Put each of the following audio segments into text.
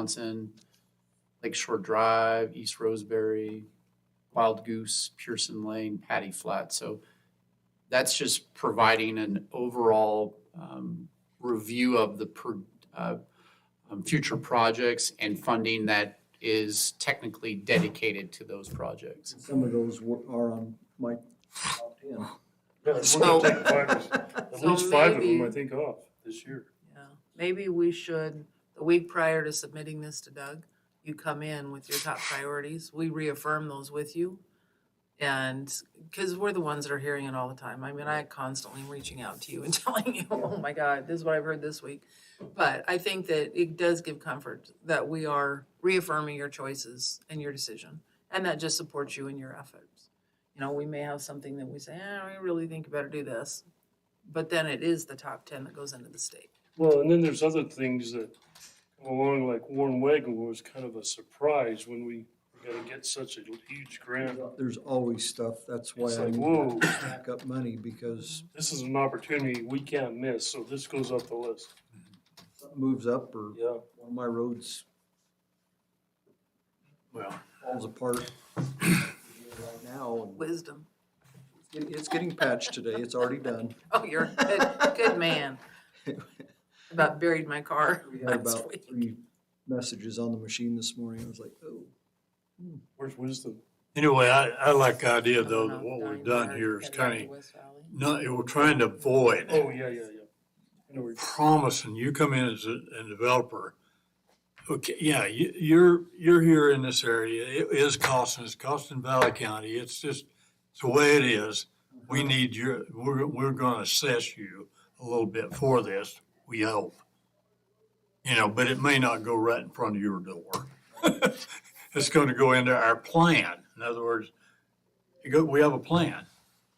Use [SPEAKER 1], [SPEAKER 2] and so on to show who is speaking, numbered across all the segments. [SPEAKER 1] Johnson, Lakeshore Drive, East Roseberry, Wild Goose, Pearson Lane, Patty Flat. So that's just providing an overall um, review of the pro- uh, um, future projects and funding that is technically dedicated to those projects.
[SPEAKER 2] Some of those were, are on my top ten.
[SPEAKER 3] Yeah, we're
[SPEAKER 1] So-
[SPEAKER 3] gonna take five of- At
[SPEAKER 4] So
[SPEAKER 3] least five of them, I
[SPEAKER 4] maybe-
[SPEAKER 3] think, off this year.
[SPEAKER 4] Yeah, maybe we should, the week prior to submitting this to Doug, you come in with your top priorities. We reaffirm those with you. And, because we're the ones that are hearing it all the time. I mean, I constantly am reaching out to you and telling you, oh my God, this is what I've heard this week. But I think that it does give comfort that we are reaffirming your choices and your decision. And that just supports you in your efforts. You know, we may have something that we say, eh, we really think you better do this. But then it is the top ten that goes into the state.
[SPEAKER 3] Well, and then there's other things that come along, like Warren Wagon was kind of a surprise when we got to get such a huge grant.
[SPEAKER 2] There's always stuff, that's why
[SPEAKER 3] It's
[SPEAKER 2] I
[SPEAKER 3] like,
[SPEAKER 2] need
[SPEAKER 3] whoa,
[SPEAKER 2] to stack up money because
[SPEAKER 3] this is an opportunity we can't miss, so this goes up the list.
[SPEAKER 2] something moves up or
[SPEAKER 3] Yeah.
[SPEAKER 2] one of my roads
[SPEAKER 1] Well,
[SPEAKER 2] falls apart. Right now, and
[SPEAKER 4] Wisdom.
[SPEAKER 2] it- it's getting patched today, it's already done.
[SPEAKER 4] Oh, you're a good, good man. About buried my car
[SPEAKER 2] We had
[SPEAKER 4] last
[SPEAKER 2] about
[SPEAKER 4] week.
[SPEAKER 2] three messages on the machine this morning, I was like, oh.
[SPEAKER 3] Where's wisdom?
[SPEAKER 5] Anyway, I, I like the idea
[SPEAKER 4] I don't
[SPEAKER 5] though,
[SPEAKER 4] know,
[SPEAKER 5] that what
[SPEAKER 4] dying
[SPEAKER 5] we've done
[SPEAKER 4] bird,
[SPEAKER 5] here is
[SPEAKER 4] headed out
[SPEAKER 5] kind
[SPEAKER 4] to
[SPEAKER 5] of,
[SPEAKER 4] West Valley.
[SPEAKER 5] not, we're trying to avoid
[SPEAKER 3] Oh, yeah, yeah, yeah. I know where you're-
[SPEAKER 5] promising, you come in as a, a developer. Okay, yeah, you, you're, you're here in this area, it is costing, it's costing Valley County, it's just, it's the way it is. We need your, we're, we're gonna assess you a little bit for this, we hope. You know, but it may not go right in front of your door. It's gonna go into our plan, in other words, you go, we have a plan,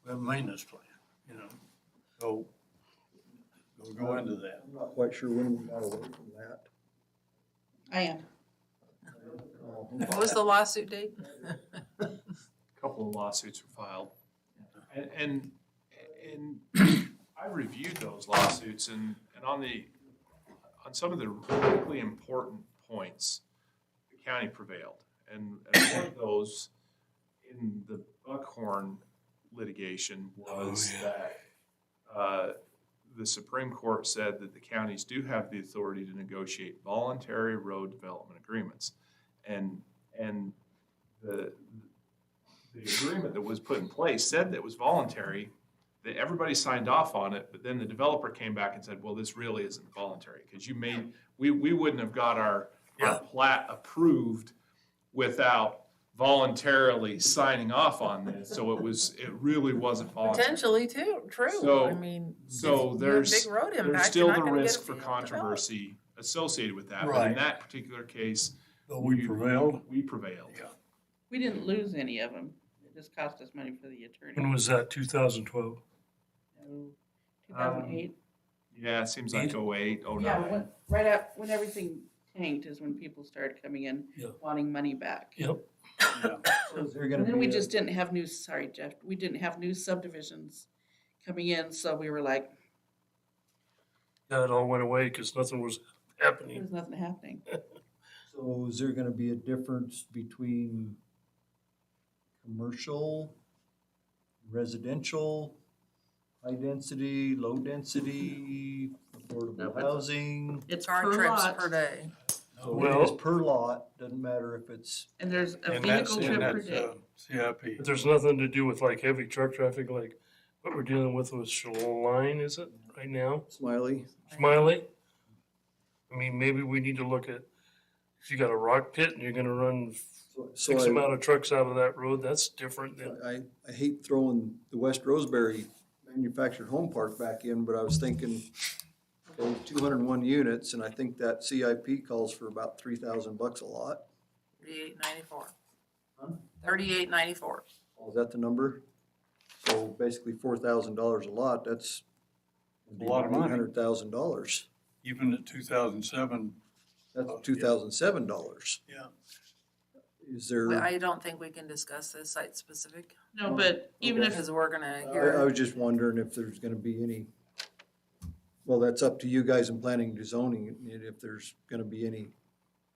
[SPEAKER 5] we have a maintenance plan, you know, so. We'll go into that.
[SPEAKER 2] I'm not quite sure when we got away from that.
[SPEAKER 6] I am.
[SPEAKER 2] Oh,
[SPEAKER 4] What was the lawsuit date?
[SPEAKER 7] couple of lawsuits were filed. And, and, and I reviewed those lawsuits and, and on the, on some of the really important points, the county prevailed. And, and one of those in the Buckhorn litigation was that, uh, the Supreme Court said that the counties do have the authority to negotiate voluntary road development agreements. And, and the, the agreement that was put in place said that it was voluntary, that everybody signed off on it, but then the developer came back and said, well, this really isn't voluntary, because you made, we, we wouldn't have got our,
[SPEAKER 5] Yeah.
[SPEAKER 7] our plat approved without voluntarily signing off on this, so it was, it really wasn't voluntary.
[SPEAKER 4] Potentially too, true.
[SPEAKER 7] So-
[SPEAKER 4] I mean. if
[SPEAKER 7] So
[SPEAKER 4] you have
[SPEAKER 7] there's-
[SPEAKER 4] Big road impact.
[SPEAKER 7] There's
[SPEAKER 4] you're
[SPEAKER 7] still
[SPEAKER 4] not
[SPEAKER 7] the
[SPEAKER 4] gonna get
[SPEAKER 7] risk
[SPEAKER 4] it
[SPEAKER 7] for
[SPEAKER 4] developed.
[SPEAKER 7] controversy associated with that, but in
[SPEAKER 5] Right.
[SPEAKER 7] that particular case.
[SPEAKER 5] But we prevailed.
[SPEAKER 7] We prevailed.
[SPEAKER 5] Yeah.
[SPEAKER 6] We didn't lose any of them. It just cost us money for the attorney.
[SPEAKER 3] When was that, 2012?
[SPEAKER 6] Two thousand eight.
[SPEAKER 7] Yeah, it seems like oh eight, oh
[SPEAKER 6] Yeah,
[SPEAKER 7] nine.
[SPEAKER 6] when, right up, when everything tanked is when people started coming in
[SPEAKER 5] Yeah.
[SPEAKER 6] wanting money back.
[SPEAKER 5] Yep.
[SPEAKER 2] So is there gonna
[SPEAKER 6] And then we
[SPEAKER 2] be a-
[SPEAKER 6] just didn't have new, sorry Jeff, we didn't have new subdivisions coming in, so we were like,
[SPEAKER 3] Yeah, it all went away because nothing was happening.
[SPEAKER 6] there's nothing happening.
[SPEAKER 2] So is there gonna be a difference between commercial, residential, high density, low density, affordable housing?
[SPEAKER 6] It's
[SPEAKER 4] Car
[SPEAKER 6] per
[SPEAKER 4] trips
[SPEAKER 6] lot,
[SPEAKER 4] per day.
[SPEAKER 2] So it is per lot, doesn't matter if it's,
[SPEAKER 6] and there's a
[SPEAKER 5] And that's,
[SPEAKER 6] vehicle trip
[SPEAKER 5] and
[SPEAKER 6] per
[SPEAKER 5] that's,
[SPEAKER 6] day.
[SPEAKER 5] uh, CIP.
[SPEAKER 3] But there's nothing to do with like heavy truck traffic, like what we're dealing with with Shalom Line, is it, right now?
[SPEAKER 2] Smiley,
[SPEAKER 3] Smiley? I mean, maybe we need to look at, if you got a rock pit and you're gonna run
[SPEAKER 2] so- so
[SPEAKER 3] X
[SPEAKER 2] I,
[SPEAKER 3] amount of trucks out of that road, that's different than,
[SPEAKER 2] I, I hate throwing the West Roseberry manufactured home park back in, but I was thinking two hundred and one units, and I think that CIP calls for about three thousand bucks a lot.
[SPEAKER 4] Thirty-eight ninety-four. Thirty-eight ninety-four.
[SPEAKER 2] Oh, Is that the number? So basically four thousand dollars a lot, that's.
[SPEAKER 5] A lot of money.
[SPEAKER 2] Hundred thousand dollars,
[SPEAKER 5] Even at two thousand seven,
[SPEAKER 2] that's
[SPEAKER 5] Oh, yeah.
[SPEAKER 2] two thousand seven dollars.
[SPEAKER 5] Yeah.
[SPEAKER 2] Is there, I,
[SPEAKER 4] I don't think we can discuss this site specific
[SPEAKER 6] No, but even if,
[SPEAKER 4] because we're gonna
[SPEAKER 2] I
[SPEAKER 4] hear.
[SPEAKER 2] was just wondering if there's gonna be any, well, that's up to you guys in planning and zoning, and if there's gonna be any